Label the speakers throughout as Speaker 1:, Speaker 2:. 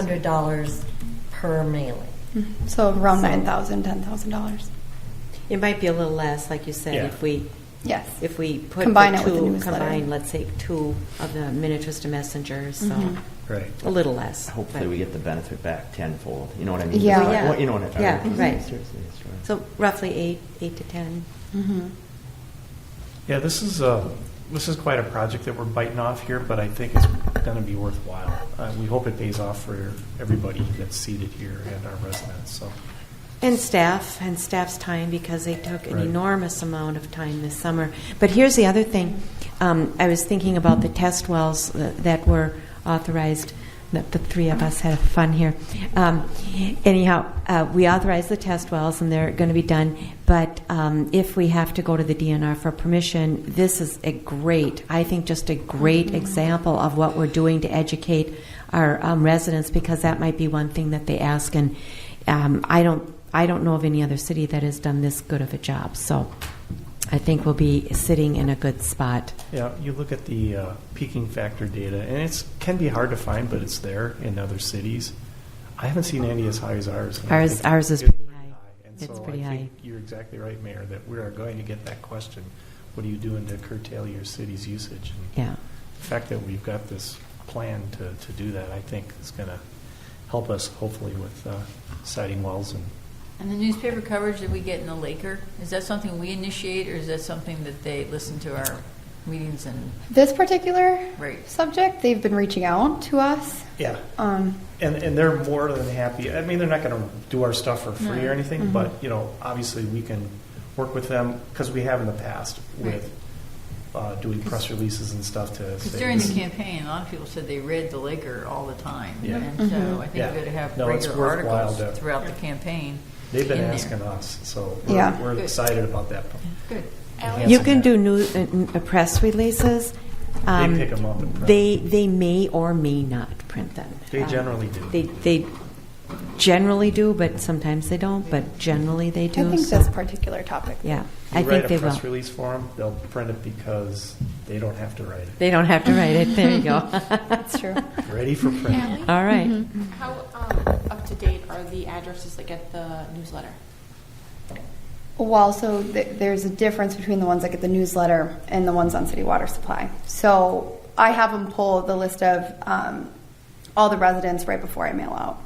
Speaker 1: hundred dollars per mailing.
Speaker 2: Mm-hmm. So around
Speaker 1: So-
Speaker 2: nine thousand, ten thousand dollars.
Speaker 3: It might be a little less, like you said,
Speaker 4: Yeah.
Speaker 3: if we,
Speaker 2: Yes.
Speaker 3: if we put
Speaker 2: Combine
Speaker 3: the
Speaker 2: it with the
Speaker 3: two,
Speaker 2: newsletter.
Speaker 3: combine, let's say, two of the Minnetrista messengers, so
Speaker 2: Mhm.
Speaker 4: Right.
Speaker 3: a little less.
Speaker 5: Hopefully,
Speaker 3: but-
Speaker 5: we get the benefit back tenfold, you know what I mean?
Speaker 2: Yeah.
Speaker 5: Like,
Speaker 3: Yeah.
Speaker 5: what- You know what I mean?
Speaker 3: Yeah,
Speaker 5: Seriously,
Speaker 3: right.
Speaker 5: it's true.
Speaker 3: So roughly eight, eight to 10.
Speaker 2: Mhm.
Speaker 6: Yeah, this is, uh, this is quite a project that we're biting off here, but I think it's gonna be worthwhile. Uh, we hope it pays off for everybody that's seated here and our residents, so.
Speaker 3: And staff, and staff's time, because they took an
Speaker 6: Right.
Speaker 3: enormous amount of time this summer. But here's the other thing. Um, I was thinking about the test wells tha- that were authorized, that the three of us had fun here. Um, anyhow, uh, we authorized the test wells, and they're going to be done. But um, if we have to go to the DNR for permission, this is a great, I think, just a great example of what we're doing to educate our um, residents, because that might be one thing that they ask. And um, I don't, I don't know of any other city that has done this good of a job. So I think we'll be sitting in a good spot.
Speaker 6: Yeah, you look at the uh, peaking factor data, and it's, can be hard to find, but it's there in other cities. I haven't seen any as high as ours. and I
Speaker 3: Ours-
Speaker 6: think
Speaker 3: ours is
Speaker 6: it's
Speaker 3: pretty high.
Speaker 6: And
Speaker 3: It's
Speaker 6: so
Speaker 3: pretty
Speaker 6: I
Speaker 3: high.
Speaker 6: think you're exactly right, Mayor, that we are going to get that question. What are you doing to curtail your city's usage? And
Speaker 3: Yeah.
Speaker 6: The fact that we've got this plan to, to do that, I think is going to help us hopefully with uh, siding wells and
Speaker 7: And the newspaper coverage that we get in the Laker, is that something we initiate, or is that something that they listen to our meetings and,
Speaker 2: This particular
Speaker 7: Right.
Speaker 2: subject, they've been reaching out to us.
Speaker 6: Yeah,
Speaker 2: Um,
Speaker 6: and and they're more than happy. I mean, they're not going to do our stuff for free or
Speaker 7: No. Mm-hmm.
Speaker 6: anything, but you know, obviously we can work with them because we have in the past with uh, doing press releases and stuff to.
Speaker 7: because
Speaker 6: say
Speaker 7: during the
Speaker 6: this-
Speaker 7: campaign, a lot of people said they read the Laker all the time.
Speaker 6: Yeah.
Speaker 7: And so I think
Speaker 6: Yeah.
Speaker 7: we gotta have
Speaker 6: No, it's
Speaker 7: regular
Speaker 6: worthwhile
Speaker 7: articles
Speaker 6: to-
Speaker 7: throughout the campaign.
Speaker 6: They've been
Speaker 7: in there.
Speaker 6: asking us, so we're,
Speaker 2: Yeah.
Speaker 6: we're
Speaker 7: Good.
Speaker 6: excited about that.
Speaker 7: Good.
Speaker 3: You
Speaker 6: enhancing
Speaker 3: can
Speaker 6: that.
Speaker 3: do new, uh, n- uh, press releases. Um,
Speaker 6: pick 'em up and print.
Speaker 3: They, they may or may not print them.
Speaker 6: They
Speaker 3: Um,
Speaker 6: generally do.
Speaker 3: They, they generally do, but sometimes they don't, but generally they
Speaker 2: I
Speaker 3: do.
Speaker 2: think
Speaker 3: so-
Speaker 2: this particular topic.
Speaker 3: Yeah,
Speaker 6: You
Speaker 3: I
Speaker 6: write
Speaker 3: think
Speaker 6: a
Speaker 3: they
Speaker 6: press
Speaker 3: will.
Speaker 6: release for them. They'll print it because they don't have to write
Speaker 3: They don't have to write it. There you go.
Speaker 2: That's true.
Speaker 6: it. Ready for print.
Speaker 8: Allie,
Speaker 3: All right.
Speaker 8: how um, up to date are the addresses that get the newsletter?
Speaker 2: Well, so th- there's a difference between the ones that get the newsletter and the ones on city water supply. So I have them pull the list of um, all the residents right before I mail out.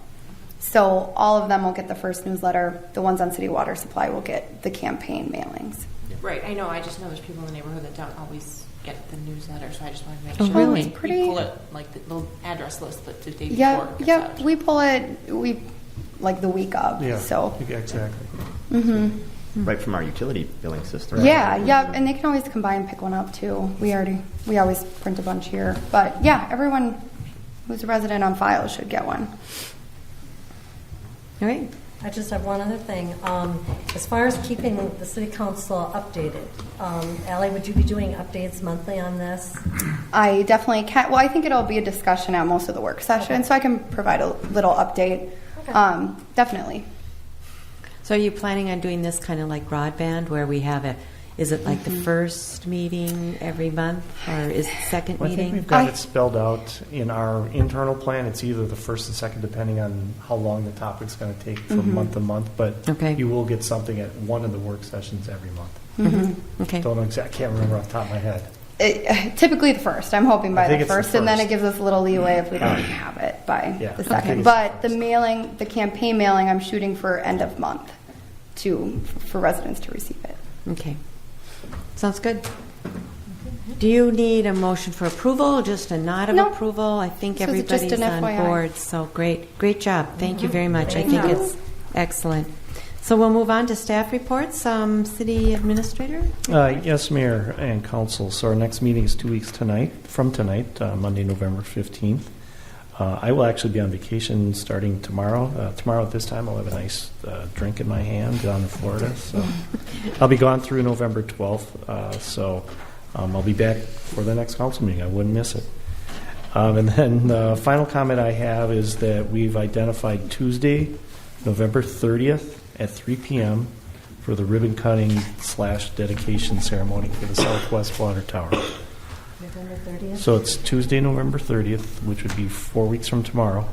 Speaker 2: So all of them will get the first newsletter. The ones on city water supply will get the campaign mailings.
Speaker 8: Right, I know, I just know there's people in the neighborhood that don't always get the newsletter, so I just wanted to make
Speaker 3: Oh,
Speaker 8: sure.
Speaker 3: really?
Speaker 8: you
Speaker 2: Pretty-
Speaker 8: pull it, like the little address list that the day before.
Speaker 2: Yeah,
Speaker 8: gets
Speaker 2: yeah.
Speaker 8: out.
Speaker 2: We pull it. We like the week of.
Speaker 6: Yeah.
Speaker 2: So.
Speaker 6: exactly.
Speaker 2: hmm
Speaker 5: Right from our utility billing system.
Speaker 2: Yeah, yep, and they can always come by and pick one up too. We already, we always print a bunch here, but yeah, everyone who's a resident on file should get one.
Speaker 3: All right.
Speaker 1: I just have one other thing. Um, as far as keeping the city council updated, um, Ally, would you be doing updates monthly on this?
Speaker 2: I definitely can. Well, I think it'll be a discussion at most of the work session, so I can provide a little update.
Speaker 1: Okay.
Speaker 2: Um, definitely.
Speaker 3: So are you planning on doing this kind of like broadband where we have a, is it like the
Speaker 6: Mm-hmm.
Speaker 3: first meeting every month or is it second
Speaker 6: Well, I think
Speaker 3: meeting?
Speaker 6: we've got
Speaker 2: I-
Speaker 6: it spelled out in our internal plan. It's either the first and second, depending on how long the topic's going to take from month to month, but
Speaker 3: Mm-hmm. Okay.
Speaker 6: you will get something at one of the work sessions every month.
Speaker 3: Okay.
Speaker 6: Don't know exactly, can't remember off the top of my head.
Speaker 2: It, typically the first. I'm hoping
Speaker 6: I
Speaker 2: by
Speaker 6: think
Speaker 2: the
Speaker 6: it's the
Speaker 2: first, and then it
Speaker 6: first.
Speaker 2: gives us a little leeway if we don't have it by
Speaker 6: Yeah, I
Speaker 2: the
Speaker 6: think
Speaker 2: second.
Speaker 6: it's the
Speaker 2: But the
Speaker 6: first.
Speaker 2: mailing, the campaign mailing, I'm shooting for end of month to for residents to receive it.
Speaker 3: Okay. Sounds good. Do you need a motion for approval, just a nod of
Speaker 2: No.
Speaker 3: approval? I think
Speaker 2: This was just
Speaker 3: everybody's
Speaker 2: an
Speaker 3: on
Speaker 2: FYI.
Speaker 3: board, so great, great job. Thank you very much. I
Speaker 1: Thank
Speaker 3: think
Speaker 1: you.
Speaker 3: it's excellent. So we'll move on to staff reports. Um, City Administrator?
Speaker 6: Uh, Yes, Mayor and Council, so our next meeting is two weeks tonight, from tonight, uh, Monday, November 15th. Uh, I will actually be on vacation starting tomorrow. Uh, Tomorrow at this time, I'll have a nice uh, drink in my hand down in Florida, so I'll be gone through November 12th, uh, so um, I'll be back for the next council meeting. I wouldn't miss it. Um, And then the final comment I have is that we've identified Tuesday, November 30th at 3 p.m. for the ribbon cutting slash dedication ceremony for the Southwest Water Tower.
Speaker 1: November 30th?
Speaker 6: So it's Tuesday, November 30th, which would be four weeks from tomorrow,